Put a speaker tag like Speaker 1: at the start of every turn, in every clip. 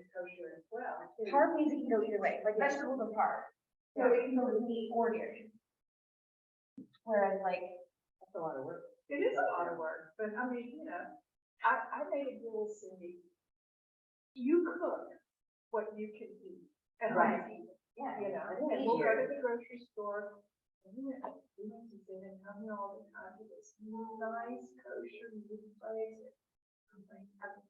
Speaker 1: as well. too.
Speaker 2: Hard means it can go either way, like vegetables are hard, so it can go with meat or dairy. Whereas like,
Speaker 3: That's a lot of work.
Speaker 1: It is a lot of work, but I mean, you know, I, I made a rule, Cindy. You cook what you can eat and I eat,
Speaker 2: yeah,
Speaker 1: you know, and we'll go to the grocery store. And you know, we went to dinner, come here all the time to this nice kosher meat place. I'm like, I'm-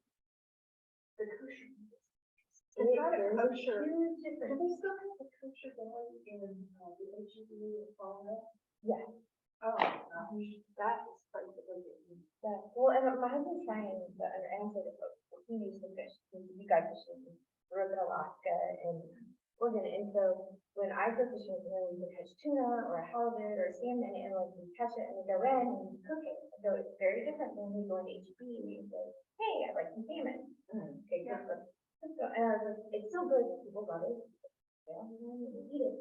Speaker 1: The kosher. meat is- It's not a kosher.
Speaker 2: huge
Speaker 1: Do
Speaker 2: difference.
Speaker 1: they still have the kosher deli in, uh, the H E B in Fallon?
Speaker 2: Yes.
Speaker 1: Oh, gosh, that is quite the way it is.
Speaker 2: Yeah, well, and my husband's trying the other end of the boat, he needs some fish, he- you guys fishing, grew up in Alaska and Oregon, and so when I go fishing with him, we catch tuna or halibut or salmon, and like we catch it and we go in and we cook it, so it's very different when we go into HB and we say, hey, I'd like some salmon.
Speaker 3: Mm.
Speaker 2: Okay,
Speaker 1: Yeah.
Speaker 2: good, let's, let's go, and I was like, it's so good, people love it, they don't even want to eat it.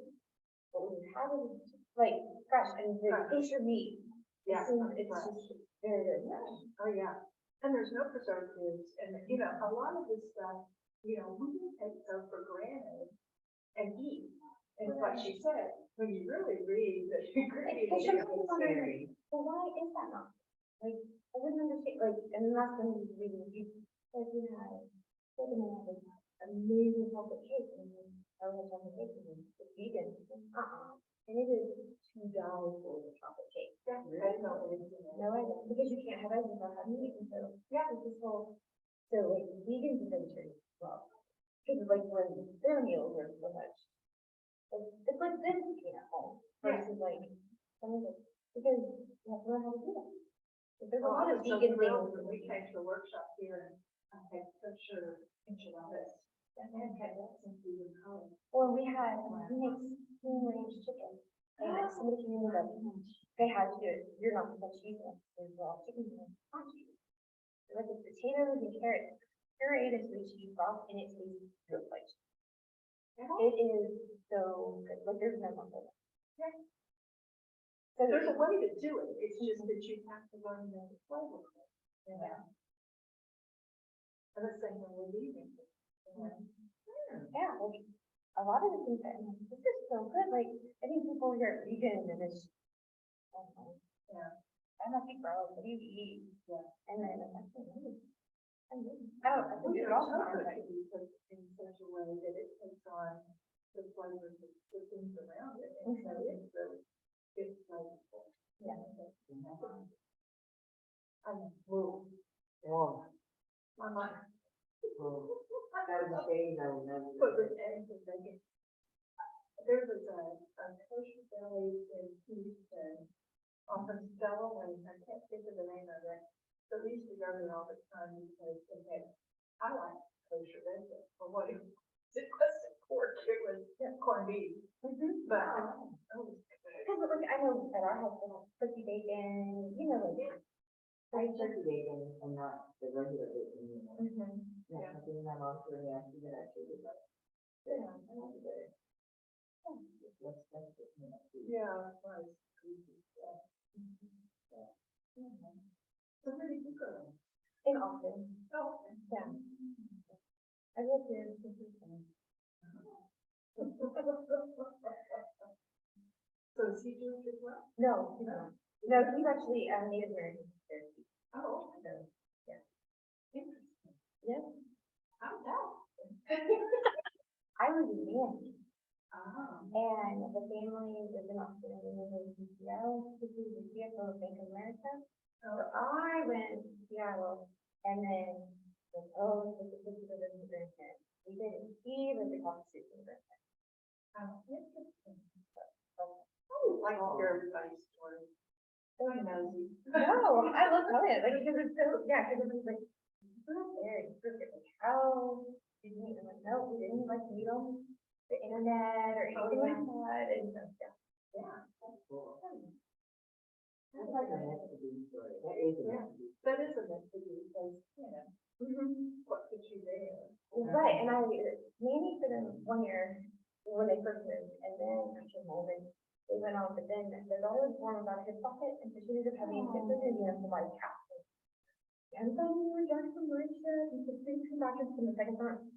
Speaker 2: But when you have it, it's like, fresh, and the
Speaker 1: Fresh.
Speaker 2: fish or meat, it
Speaker 1: Yeah,
Speaker 2: seems,
Speaker 1: I'm
Speaker 2: it's
Speaker 1: glad.
Speaker 2: just very, very nice.
Speaker 1: Oh, yeah, and there's no preservatives, and, you know, a lot of this stuff, you know, we take so for granted and eat. And what she said, when you really read the ingredients.
Speaker 2: should
Speaker 1: it's
Speaker 2: be on there.
Speaker 1: very-
Speaker 2: Well, why is that not? Like, I wouldn't understand, like, and that's when you read, you, like, you know, like, you know, like, amazing chocolate cake, and then, I was on the cake, and then it's vegan, uh-uh. And it is two dollars for a chocolate cake.
Speaker 1: Yeah, I don't know anything else.
Speaker 2: No, I don't, because you can't have eggs if I have meat, and so, yeah, it's this whole, so like vegans and vegetarians, as well. Because like when their meals are so much, like, it's like this cooking at home
Speaker 1: Yeah.
Speaker 2: versus like, some of it, because you have to learn how to do that. But There's a
Speaker 1: Oh,
Speaker 2: lot
Speaker 1: I
Speaker 2: of
Speaker 1: was so
Speaker 2: vegan
Speaker 1: thrilled when
Speaker 2: things.
Speaker 1: We came to a workshop here, and I had such a enchiladas, and then had that since we were in college.
Speaker 2: Or we had, um, we make home range chicken, and like somebody came in with like, they had to do it, you're not supposed to use them, there's raw chicken, in it." Not cheese. Like the potatoes and carrots, pureed as we cheese broth, and it tastes just like cheese. It is so good, like there's no longer.
Speaker 1: Yeah.
Speaker 2: So
Speaker 1: There's a
Speaker 2: there's,
Speaker 1: way to do it, it's just that you have to learn the flavor. of it, you know? And the same when we're leaving. you know?
Speaker 2: yeah, like, a lot of the things that, I'm like, this is so good, like, I think people here are vegan and it's. I don't know.
Speaker 1: Yeah.
Speaker 2: I'm like, bro, what do you eat?
Speaker 1: Yeah.
Speaker 2: And then I'm like, "Oh, really? I don't, Oh, I think
Speaker 1: We
Speaker 2: you're
Speaker 1: are
Speaker 2: all.
Speaker 1: chocolate
Speaker 2: right."
Speaker 1: can be cooked in such a way that it takes on the flavors of the things around it, and so
Speaker 2: Mhm.
Speaker 1: it's the, it's flavorful.
Speaker 2: Yeah.
Speaker 1: I'm, whoa,
Speaker 3: Oh,
Speaker 1: my mind.
Speaker 3: oh. That was a day, no, no.
Speaker 1: But with anything they can. There was a, a kosher deli in Houston, off of Stella Lane, I can't think of the name of it. But we used to go there all the time because they had, I like kosher vegetables, but what it, it wasn't pork, it was corned beef.
Speaker 2: Mhm.
Speaker 1: But,
Speaker 2: Oh.
Speaker 1: oh, it was good.
Speaker 2: Cause like, I know at our house, we have turkey bacon, you know, like.
Speaker 3: I turkey bacon and not the regular bacon, you know.
Speaker 2: Mhm.
Speaker 3: Yeah,
Speaker 1: Yeah.
Speaker 3: I think my mom told me after that, she was like, yeah, I love it. It's less expensive, you know, food.
Speaker 1: Yeah, it was. Yeah. Mm-hmm. Yeah. Mm-hmm. So where did you go?
Speaker 2: In Austin,
Speaker 1: Oh, okay.
Speaker 2: yeah. I live here in San Francisco.
Speaker 1: So is he doing as well?
Speaker 2: No, he's not. No, he's actually a Native American. Cherokee,
Speaker 1: Oh,
Speaker 2: so.
Speaker 1: interesting. Uh-huh.
Speaker 2: Yeah.
Speaker 1: How's that?
Speaker 2: I was in Miami,
Speaker 1: Ah,
Speaker 2: and the family was in Austin, and we moved to Seattle, because he was the CFO of Bank of America. So
Speaker 1: oh,
Speaker 2: I went to Seattle, and then, like, oh, this is the living grandparent. We didn't, he lived across the street from the grandparent.
Speaker 3: Um,
Speaker 1: how interesting.
Speaker 2: So-
Speaker 1: I always like to hear everybody's story. So nosy.
Speaker 2: No, I love telling it, like, because it's so, yeah, because it's like, so there, it's perfect, like, how did you, and I'm like, no, we didn't, like, we don't, the internet or
Speaker 1: Oh,
Speaker 2: anything like that, and so, yeah.
Speaker 1: Yeah.
Speaker 3: That's cool. That's like a Mexican story. That is a
Speaker 1: Yeah.
Speaker 3: Mexican.
Speaker 1: That is a mystery because, you know,
Speaker 2: Mm-hmm.
Speaker 1: what put you there?
Speaker 2: Right, and I nanny for them one year when they first moved, and then I came home and they went on, but then there's always one about his pocket, and so she ended up having six hundred units in my house. And then we were just from Malaysia, and the things came back and from the second time,